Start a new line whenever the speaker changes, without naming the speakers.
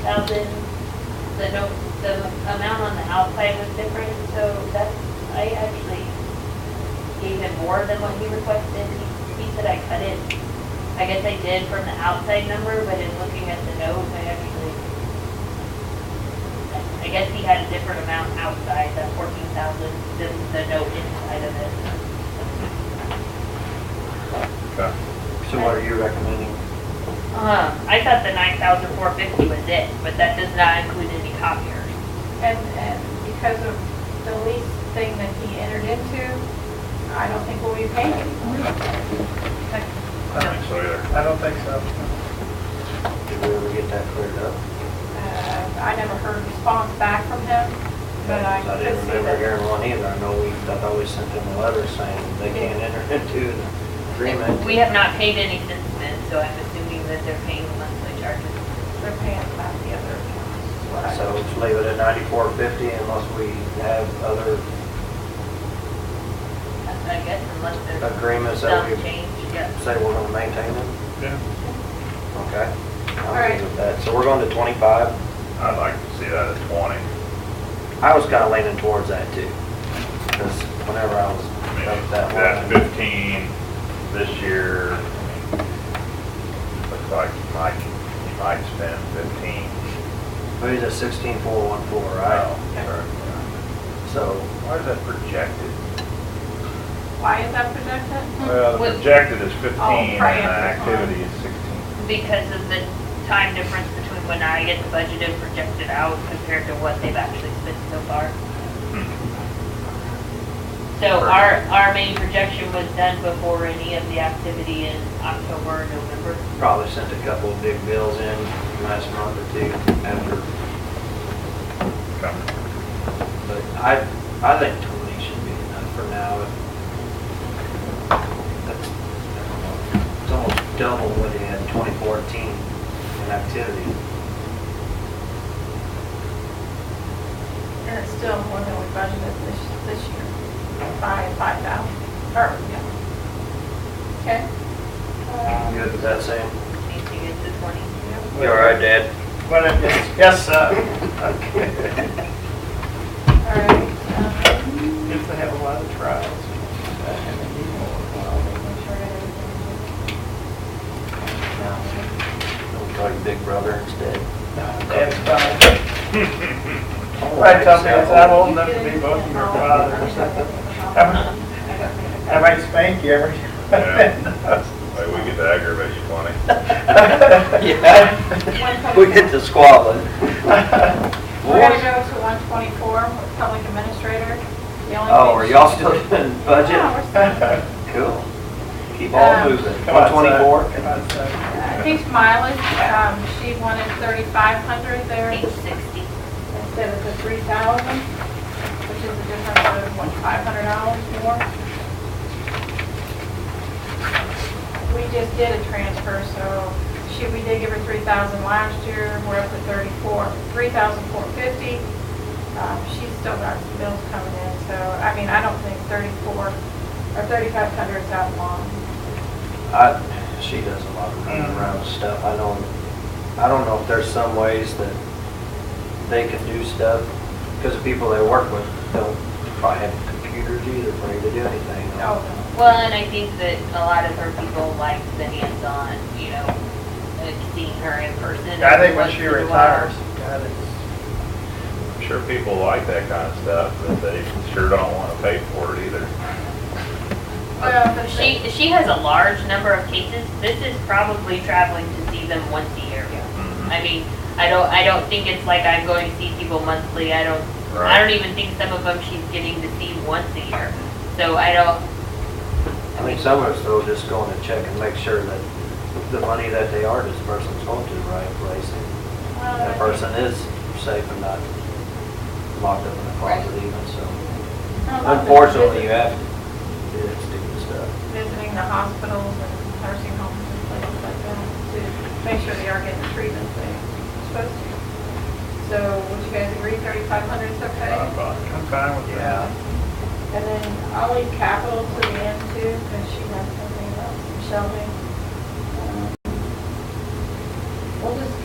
thousand, the no, the amount on the outside was different, so that's, I actually gave him more than what he requested. He he said I cut it, I guess I did from the outside number, but in looking at the note, I actually, I guess he had a different amount outside, that fourteen thousand, than the note inside of it.
Okay.
So what are you recommending?
Uh, I thought the nine thousand four fifty was it, but that does not include any copiers.
And, and because of the lease thing that he entered into, I don't think we'll be paying anymore.
I don't think so either.
I don't think so.
Did we ever get that cleared up?
Uh, I never heard a response back from him, but
I
I could
didn't
see
remember
that.
hearing one either. I know we, I thought we sent them a letter saying they can't enter into an agreement.
We have not paid any since then, so I'm assuming that they're paying the monthly charges.
They're paying back the other accounts, is what I.
So just leave it at ninety-four fifty unless we have other
I guess unless there's
agreements
some
that we
change, yeah.
say we're gonna maintain them.
Yeah.
Okay. I'm
All right.
good with that. So we're going to twenty-five.
I'd like to see that at twenty.
I was kinda leaning towards that too. Cause whenever I was
I mean,
up
That
that way.
fifteen this year, I mean, looks like you might, you might spend fifteen.
Maybe it's sixteen four one four,
Wow.
right? So
Why is that projected?
Why is that projected?
Well, the
With-
projected is fifteen and the
prior to
activity is sixteen.
Because of the time difference between when I get the budget and projected out compared to what they've actually spent so far. So our, our main projection was done before any of the activity in October, or November.
Probably sent a couple of big bills in last month or two after,
Okay.
but I, I think twenty should be enough for now. That's- It's almost double what he had in twenty fourteen in activity.
And it's still more than we budgeted this, this year, by five thousand, or, yeah. Okay.
You Good with that, Sam?
Anything into twenty.
You all right, Dad?
Yes, uh,
Okay.
Uh, All right, um,
if they have a lot of trials.
We'll call you Big Brother instead.
That's fine. I tell me, I'm old enough to be both of your fathers. I might- I might spank you every.
Yeah. Hey, we get to aggravate you twenty.
Yeah. We get to squabbling.
We're gonna go to one twenty-four, public administrator. The only
Oh, are
thing-
y'all still doing
Yeah,
budget?
we're still-
Cool. Keep
Um,
on moving.
Come on, son.
124?
Come on, son.
I think mileage, um, she wanted thirty-five hundred there
Eight sixty.
instead of the three thousand, which is a difference of, what, five hundred dollars more? We just did a transfer, so she, we did give her three thousand last year, we're up to thirty-four, three thousand four fifty. Um, she's still got some bills coming in, so, I mean, I don't think thirty-four or thirty-five hundred is that long.
I, she does a lot of running
Mm.
around stuff. I don't, I don't know if there's some ways that they can do stuff, because the people they work with don't probably have computers either for you to do anything.
Oh, no.
Well, and I think that a lot of her people like the hands-on, you know, uh, seeing her in person.
I think when she
once in a while.
retires, God, it's,
I'm sure people like that kind of stuff, but they sure don't want to pay for it either.
Well, but
She, she has a large number of cases. This is probably traveling to see them once a year.
Mhm.
I mean, I don't, I don't think it's like I'm going to see people monthly. I don't, I
Right.
don't even think some of them she's getting to see once a year. So I don't,
I mean, some of us though, just going to check and make sure that the money that they are dispersing's going to the right place. and
Well,
That person is safe and not locked up in a closet
Right.
even, so.
I don't know.
Unfortunately, you have to do that stupid stuff.
Visiting the hospitals and nursing homes and places like that to make sure they are getting the treatment they're supposed to. So would you guys agree thirty-five hundred is okay?
I'm fine.
I'm fine with that.
Yeah,
And then I'll leave capital to the end too, because she has something about some shelving. Um, We'll just